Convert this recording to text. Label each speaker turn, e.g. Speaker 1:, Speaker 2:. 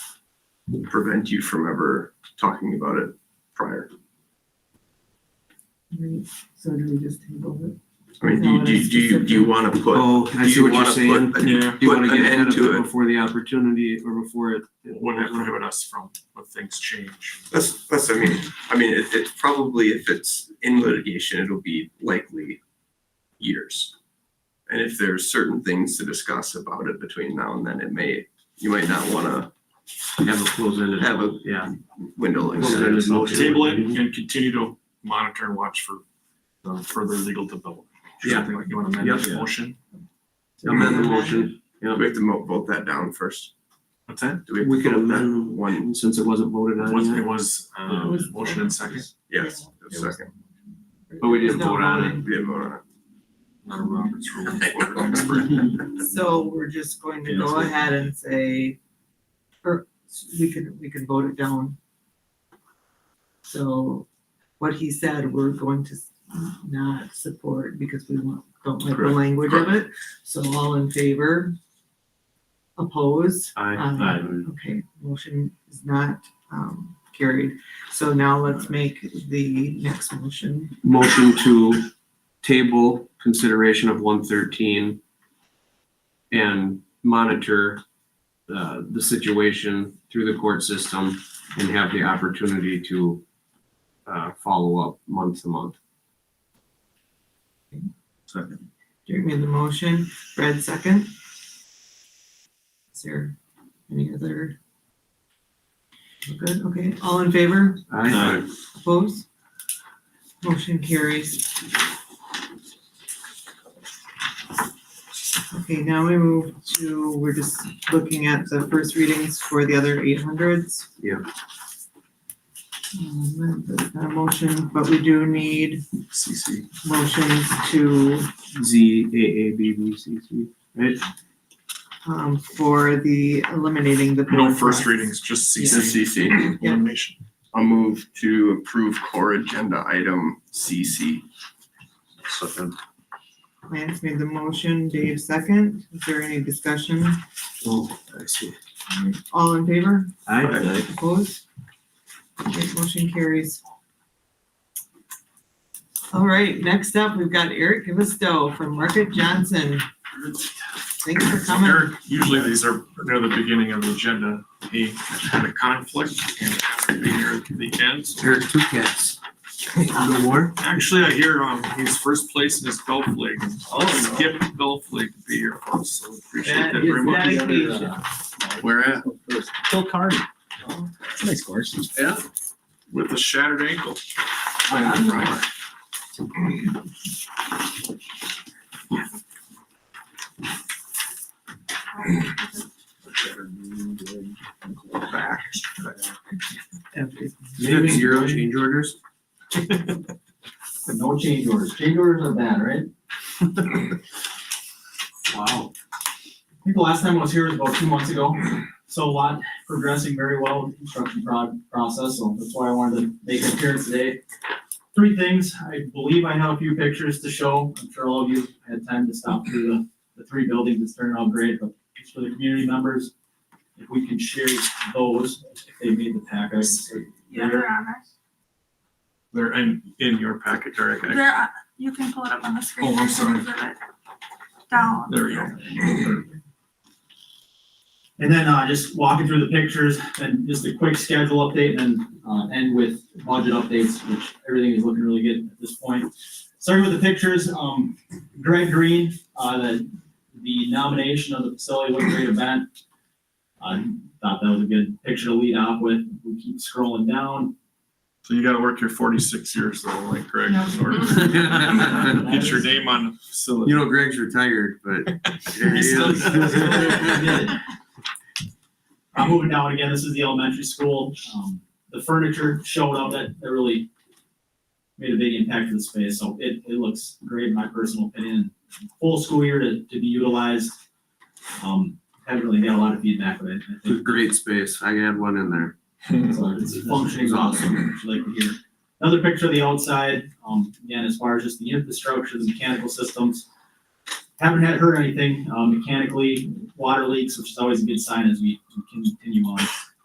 Speaker 1: prevent you from ever talking about it prior.
Speaker 2: Right, so do we just table it?
Speaker 1: I mean, do you, do you, do you, do you wanna put,
Speaker 3: Oh, I
Speaker 1: do
Speaker 3: see
Speaker 1: you
Speaker 3: what you're
Speaker 1: wanna
Speaker 3: saying.
Speaker 1: put,
Speaker 4: Yeah.
Speaker 3: You
Speaker 1: put
Speaker 3: wanna
Speaker 1: an
Speaker 3: get ahead
Speaker 1: end
Speaker 3: of
Speaker 1: to
Speaker 3: it
Speaker 1: it?
Speaker 3: before the opportunity or before it.
Speaker 4: Would it prohibit us from, when things change?
Speaker 1: That's, that's, I mean, I mean, it, it's probably, if it's in litigation, it'll be likely years. And if there's certain things to discuss about it between now and then, it may, you might not wanna
Speaker 5: Have a closed-ended.
Speaker 1: Have a-
Speaker 5: Yeah.
Speaker 1: window like
Speaker 5: Well,
Speaker 1: that.
Speaker 5: then it's
Speaker 4: We'll
Speaker 5: motion.
Speaker 4: Table it and continue to monitor and watch for uh, further legal development.
Speaker 5: Yeah.
Speaker 4: Something like you want to amend this
Speaker 5: Yeah.
Speaker 4: motion?
Speaker 5: Amend the motion.
Speaker 1: Do we have to mo- vote that down first?
Speaker 4: What's that?
Speaker 1: Do we have
Speaker 3: We
Speaker 1: to
Speaker 3: could
Speaker 1: vote that
Speaker 3: amend the
Speaker 1: one?
Speaker 3: Since it wasn't voted
Speaker 4: Was,
Speaker 3: on
Speaker 4: it
Speaker 3: yet.
Speaker 4: was,
Speaker 2: It
Speaker 4: uh,
Speaker 2: was-
Speaker 4: motion and second?
Speaker 1: Yes, a second.
Speaker 5: But we didn't
Speaker 2: There's no
Speaker 5: vote on it.
Speaker 1: We didn't vote on
Speaker 4: Not a Robert's rule of order expert.
Speaker 1: it.
Speaker 2: voting. So we're just going to
Speaker 4: Yeah,
Speaker 2: go
Speaker 4: that's-
Speaker 2: ahead and say, or we could, we could vote it down. So what he said, we're going to not support because we want, don't like the
Speaker 1: Correct.
Speaker 2: language of it. So all in favor? Opposed? Aye. Okay, motion is not um carried. So now let's make the next motion.
Speaker 3: Motion to table consideration of one thirteen and monitor uh, the situation through the court system and have the opportunity to uh, follow up month to month.
Speaker 2: Jerry made the motion, Brad second. Is there any other? We're Good, okay, all in favor,
Speaker 3: Aye.
Speaker 2: opposed? Motion carries. Okay, now we move to, we're just looking at the first readings for the other eight hundreds.
Speaker 3: Yeah.
Speaker 2: Um, that's not a motion, but we do need
Speaker 4: CC.
Speaker 2: motions to
Speaker 3: Z A A B B C C. Right?
Speaker 2: um, for the eliminating the.
Speaker 4: No
Speaker 2: board
Speaker 4: first
Speaker 2: process.
Speaker 4: readings, just CC
Speaker 1: CC,
Speaker 2: Yeah.
Speaker 4: elimination.
Speaker 1: I'll move to approve core agenda item CC.
Speaker 5: Second.
Speaker 2: Lance made the motion, Dave second. Is there any discussion?
Speaker 3: Oh, I see.
Speaker 2: All in favor?
Speaker 5: Aye.
Speaker 2: Opposed? Okay, motion carries. All right, next up, we've got Eric Gavisto from Market Johnson. Thanks for coming.
Speaker 4: Eric, usually these are near the beginning of the agenda. He had a conflict and has to be near the end. so
Speaker 3: Eric, two cats. No more?
Speaker 4: Actually, I hear um he's first place in his golf league. I'll skip the golf league to be here for us, so appreciate that
Speaker 2: That
Speaker 4: very
Speaker 2: is
Speaker 4: much.
Speaker 2: dedication.
Speaker 1: Where at?
Speaker 6: Phil Carney. It's a nice course.
Speaker 4: With a shattered ankle.
Speaker 3: Maybe zero change orders?
Speaker 6: No change orders. Change orders are bad, right?
Speaker 3: Wow.
Speaker 6: I think the last time I was here was about two months ago. So a lot progressing very well with the construction pro- process, so that's why I wanted to make an appearance today. Three things, I believe I have a few pictures to show. I'm sure all of you had time to stop through the, the three buildings. It's turned out great, but it's for the community members. If we can share those, if they made the pack, I would say
Speaker 7: Yeah, they're on us.
Speaker 4: They're in in your packet, Eric. I-
Speaker 7: They're, on- you can pull it up on the screen.
Speaker 4: Oh, I'm
Speaker 7: There's
Speaker 4: sorry.
Speaker 7: pictures of it Down.
Speaker 4: There we go.
Speaker 6: And then, uh, just walking through the pictures and just a quick schedule update and then, uh, end with budget updates, which everything is looking really good at this point. Starting with the pictures, um, Greg Green, uh, the, the nomination of the facility, what a great event. I thought that was a good picture to lead off with. We keep scrolling down.
Speaker 4: So you gotta work your forty-six years though, like Greg, in order to get your name on the facility.
Speaker 3: You know, Greg's retired, but there he
Speaker 4: He's still-
Speaker 3: is.
Speaker 6: I'm moving down again. This is the elementary school. Um, the furniture showed up that, that really made a big impact to the space. So it, it looks great, in my personal opinion. Full school year to, to be utilized. Um, haven't really got a lot of feedback, but I, I think
Speaker 3: Great space. I had one in there.
Speaker 6: so it's functioning awesome, which you like to hear. Another picture of the outside, um, again, as far as just the infrastructure, the mechanical systems. Haven't uh, had heard anything, um, mechanically, water leaks, which is always a good sign as we we continue on.